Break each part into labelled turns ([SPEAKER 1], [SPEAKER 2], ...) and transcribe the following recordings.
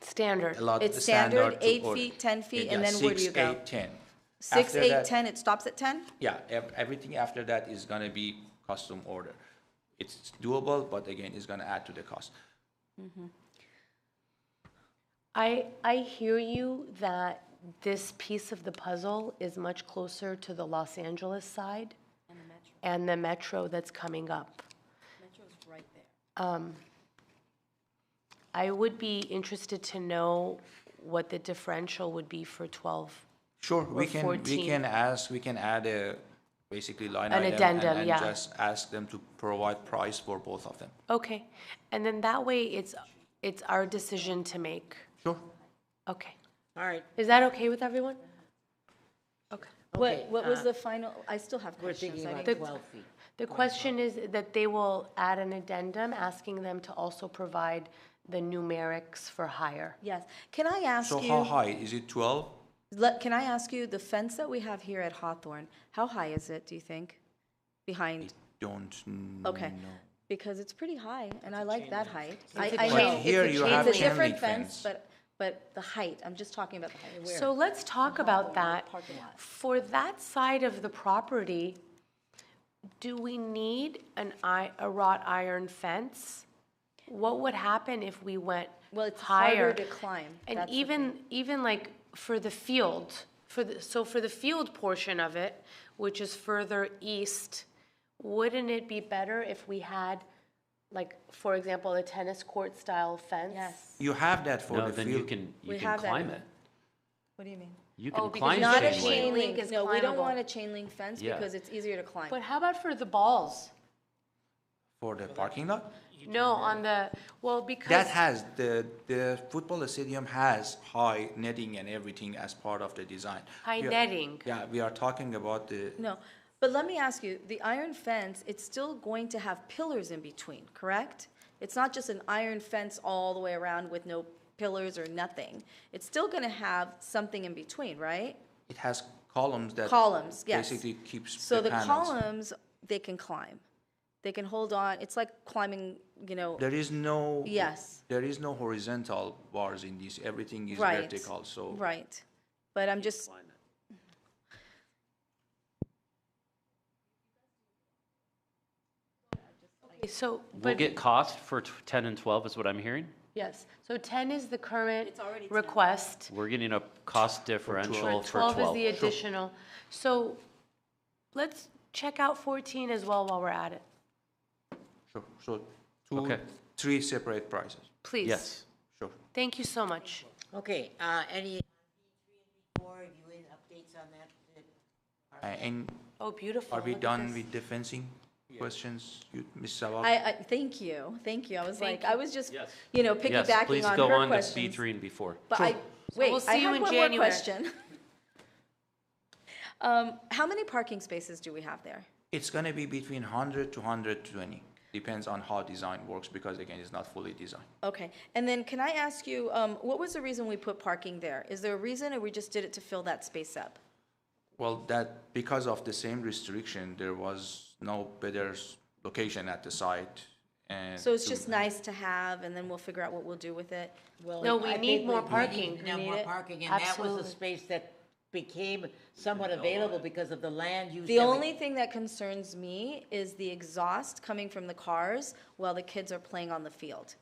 [SPEAKER 1] Standard.
[SPEAKER 2] allowed the
[SPEAKER 3] It's
[SPEAKER 2] standard
[SPEAKER 3] standard,
[SPEAKER 2] to
[SPEAKER 3] eight
[SPEAKER 2] order.
[SPEAKER 3] feet, 10 feet,
[SPEAKER 2] Yeah,
[SPEAKER 3] and then where do you go?
[SPEAKER 2] Six, eight, ten.
[SPEAKER 3] Six,
[SPEAKER 2] After
[SPEAKER 3] eight,
[SPEAKER 2] that-
[SPEAKER 3] 10, it stops at 10?
[SPEAKER 2] Yeah, ev- everything after that is gonna be custom order. It's doable, but again, it's gonna add to the cost.
[SPEAKER 1] I, I hear you that this piece of the puzzle is much closer to the Los Angeles side and the metro that's coming up. Metro's right there. I would be interested to know what the differential would be for 12.
[SPEAKER 2] Sure, we can, we
[SPEAKER 1] 14.
[SPEAKER 2] can ask, we can add a, basically line
[SPEAKER 1] An
[SPEAKER 2] item. and-
[SPEAKER 1] addendum, yeah.
[SPEAKER 2] And just ask them to provide price for both of them.
[SPEAKER 1] Okay, and then that way it's, it's our decision to make.
[SPEAKER 2] Sure.
[SPEAKER 1] Okay.
[SPEAKER 4] All right,
[SPEAKER 1] Is that okay with everyone? Okay.
[SPEAKER 4] Okay,
[SPEAKER 3] What, what was
[SPEAKER 4] uh,
[SPEAKER 3] the final, I still have
[SPEAKER 4] we're
[SPEAKER 3] questions.
[SPEAKER 4] thinking
[SPEAKER 3] I
[SPEAKER 4] about
[SPEAKER 3] didn't-
[SPEAKER 4] 12 feet.
[SPEAKER 1] The question is that they will add an addendum asking them to also provide the numerics for hire.
[SPEAKER 3] Yes. Can I ask
[SPEAKER 2] So how
[SPEAKER 3] you,
[SPEAKER 2] high? Is it twelve?
[SPEAKER 3] let- can I ask you, the fence that we have here at Hawthorne, how high is it, do you think? Behind,
[SPEAKER 2] Don't know.
[SPEAKER 3] okay. Because it's pretty high, and I like that height. I
[SPEAKER 1] a
[SPEAKER 3] I
[SPEAKER 1] chain-
[SPEAKER 3] know
[SPEAKER 1] But
[SPEAKER 3] it's
[SPEAKER 2] here
[SPEAKER 3] a
[SPEAKER 2] you
[SPEAKER 3] chain-
[SPEAKER 2] have
[SPEAKER 3] It's a
[SPEAKER 2] chain
[SPEAKER 3] different
[SPEAKER 2] link
[SPEAKER 3] fence,
[SPEAKER 2] fence.
[SPEAKER 3] but, but the height, I'm just talking about the height.
[SPEAKER 1] So let's talk about that. For that side of the property, do we need an i, a wrought iron fence? What would happen if we went
[SPEAKER 3] Well, it's
[SPEAKER 1] higher?
[SPEAKER 3] harder to climb.
[SPEAKER 1] And
[SPEAKER 3] That's the
[SPEAKER 1] even, even like for the field, for the, so for the field portion of it, which is further east, wouldn't it be better if we had, like, for example, a tennis court style fence?
[SPEAKER 3] Yes.
[SPEAKER 2] You have that for
[SPEAKER 5] No,
[SPEAKER 2] the
[SPEAKER 5] then you
[SPEAKER 2] field.
[SPEAKER 5] can,
[SPEAKER 3] We
[SPEAKER 5] you can
[SPEAKER 3] have that.
[SPEAKER 5] climb it.
[SPEAKER 3] What do you mean?
[SPEAKER 5] You
[SPEAKER 1] Oh,
[SPEAKER 5] can
[SPEAKER 1] because
[SPEAKER 5] climb
[SPEAKER 3] Not a
[SPEAKER 5] chain
[SPEAKER 3] chain
[SPEAKER 5] link.
[SPEAKER 3] link,
[SPEAKER 1] is
[SPEAKER 3] no, we don't
[SPEAKER 1] climbable.
[SPEAKER 3] want a chain link fence
[SPEAKER 5] Yeah.
[SPEAKER 3] because it's easier to climb.
[SPEAKER 1] But how about for the balls?
[SPEAKER 2] For the parking lot?
[SPEAKER 1] No, on the, well, because.
[SPEAKER 2] That has, the, the football stadium has high netting and everything as part of the design.
[SPEAKER 1] High
[SPEAKER 2] We are-
[SPEAKER 1] netting.
[SPEAKER 2] Yeah, we are talking about the,
[SPEAKER 3] No, but let me ask you, the iron fence, it's still going to have pillars in between, correct? It's not just an iron fence all the way around with no pillars or nothing. It's still gonna have something in between, right?
[SPEAKER 2] it has columns that.
[SPEAKER 3] Columns, yes.
[SPEAKER 2] Basically keeps
[SPEAKER 3] So
[SPEAKER 2] the
[SPEAKER 3] the
[SPEAKER 2] panels.
[SPEAKER 3] columns, they can climb. They can hold on, it's like climbing, you know,
[SPEAKER 2] There is no.
[SPEAKER 3] Yes.
[SPEAKER 2] There is no horizontal bars in this, everything is
[SPEAKER 3] right.
[SPEAKER 2] vertical, so.
[SPEAKER 3] Right, but I'm just,
[SPEAKER 1] So,
[SPEAKER 5] We'll
[SPEAKER 1] but,
[SPEAKER 5] get cost for t- 10 and 12 is what I'm hearing.
[SPEAKER 1] yes, so 10 is the current request.
[SPEAKER 5] We're getting a cost differential for 12.
[SPEAKER 1] 12 is the additional. So let's check out 14 as well while we're at it,
[SPEAKER 2] Sure, so two,
[SPEAKER 5] Okay.
[SPEAKER 2] three separate prices,
[SPEAKER 1] please.
[SPEAKER 5] Yes.
[SPEAKER 2] sure.
[SPEAKER 1] Thank you so much.
[SPEAKER 4] Okay, uh, any? Four, have you any updates on that?
[SPEAKER 2] Uh, And
[SPEAKER 1] Oh, beautiful.
[SPEAKER 2] are we
[SPEAKER 1] Look at
[SPEAKER 2] done
[SPEAKER 1] this.
[SPEAKER 2] with the fencing questions, you- Ms. Sabah?
[SPEAKER 3] I, I, thank you, thank you. I was
[SPEAKER 1] Thank
[SPEAKER 3] like, I was just, you know,
[SPEAKER 5] Yes,
[SPEAKER 3] piggybacking
[SPEAKER 5] please
[SPEAKER 3] on
[SPEAKER 5] go
[SPEAKER 3] her
[SPEAKER 5] on to
[SPEAKER 3] questions.
[SPEAKER 5] B3 and B4.
[SPEAKER 3] But I, wait,
[SPEAKER 1] we'll
[SPEAKER 3] I
[SPEAKER 1] see you
[SPEAKER 3] had
[SPEAKER 1] in
[SPEAKER 3] one more
[SPEAKER 1] January.
[SPEAKER 3] question. Um, how many parking spaces do we have there?
[SPEAKER 2] It's gonna be between hundred to hundred twenty, depends on how design works, because again, it's not fully designed.
[SPEAKER 3] Okay, and then can I ask you, um, what was the reason we put parking there? Is there a reason, or we just did it to fill that space up?
[SPEAKER 2] Well, that, because of the same restriction, there was no better s- location at the site, and.
[SPEAKER 3] So it's
[SPEAKER 2] to-
[SPEAKER 3] just nice to have, and then we'll figure out what we'll do with it?
[SPEAKER 1] No, we need more parking. We
[SPEAKER 4] Now,
[SPEAKER 1] need
[SPEAKER 4] more
[SPEAKER 1] it.
[SPEAKER 4] parking, and that was the
[SPEAKER 1] Absolutely.
[SPEAKER 4] space that became somewhat available because of the land use.
[SPEAKER 3] The
[SPEAKER 4] that we-
[SPEAKER 3] only thing that concerns me is the exhaust coming from the cars while the kids are playing on the field.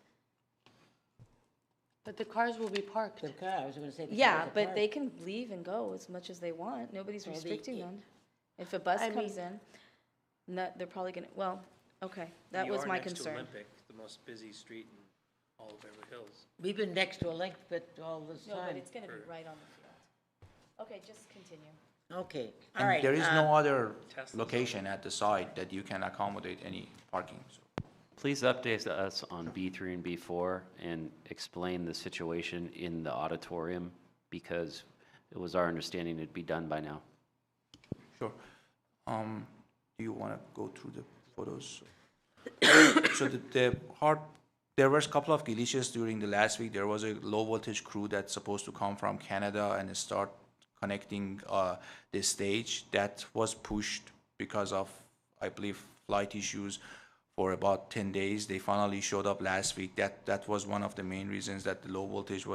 [SPEAKER 1] But the cars will be parked.
[SPEAKER 4] The car, I was gonna say. the
[SPEAKER 3] Yeah,
[SPEAKER 4] cars are
[SPEAKER 3] but they
[SPEAKER 4] parked.
[SPEAKER 3] can leave and go as much as they e want. Nobody's
[SPEAKER 4] Well, the-
[SPEAKER 3] restricting them. If a bus
[SPEAKER 1] I
[SPEAKER 3] comes in, no, they're probably gonna, well, okay, that was my concern.
[SPEAKER 6] Olympic, the most busy street in all of Beverly Hills.
[SPEAKER 4] We've been next to a link, but all this time.
[SPEAKER 3] gonna be right on the field. Okay, just continue.
[SPEAKER 4] Okay, all right.
[SPEAKER 2] And there is
[SPEAKER 4] uh,
[SPEAKER 2] no other
[SPEAKER 6] Tesla's
[SPEAKER 2] location at the site that you can accommodate any parking, so.
[SPEAKER 5] Please update us on B3 and B4 and explain the situation in the auditorium because it was our understanding it'd be done by now.
[SPEAKER 2] Sure. Um, do you want to go through the photos? So the, the hard, there was a couple of glitches during the last week. There was a low voltage crew that's supposed to come from Canada and start connecting, uh, the stage. That was pushed because of, I believe, flight issues for about ten days. They finally showed up last week. That, that was one of the main reasons that the low voltage was.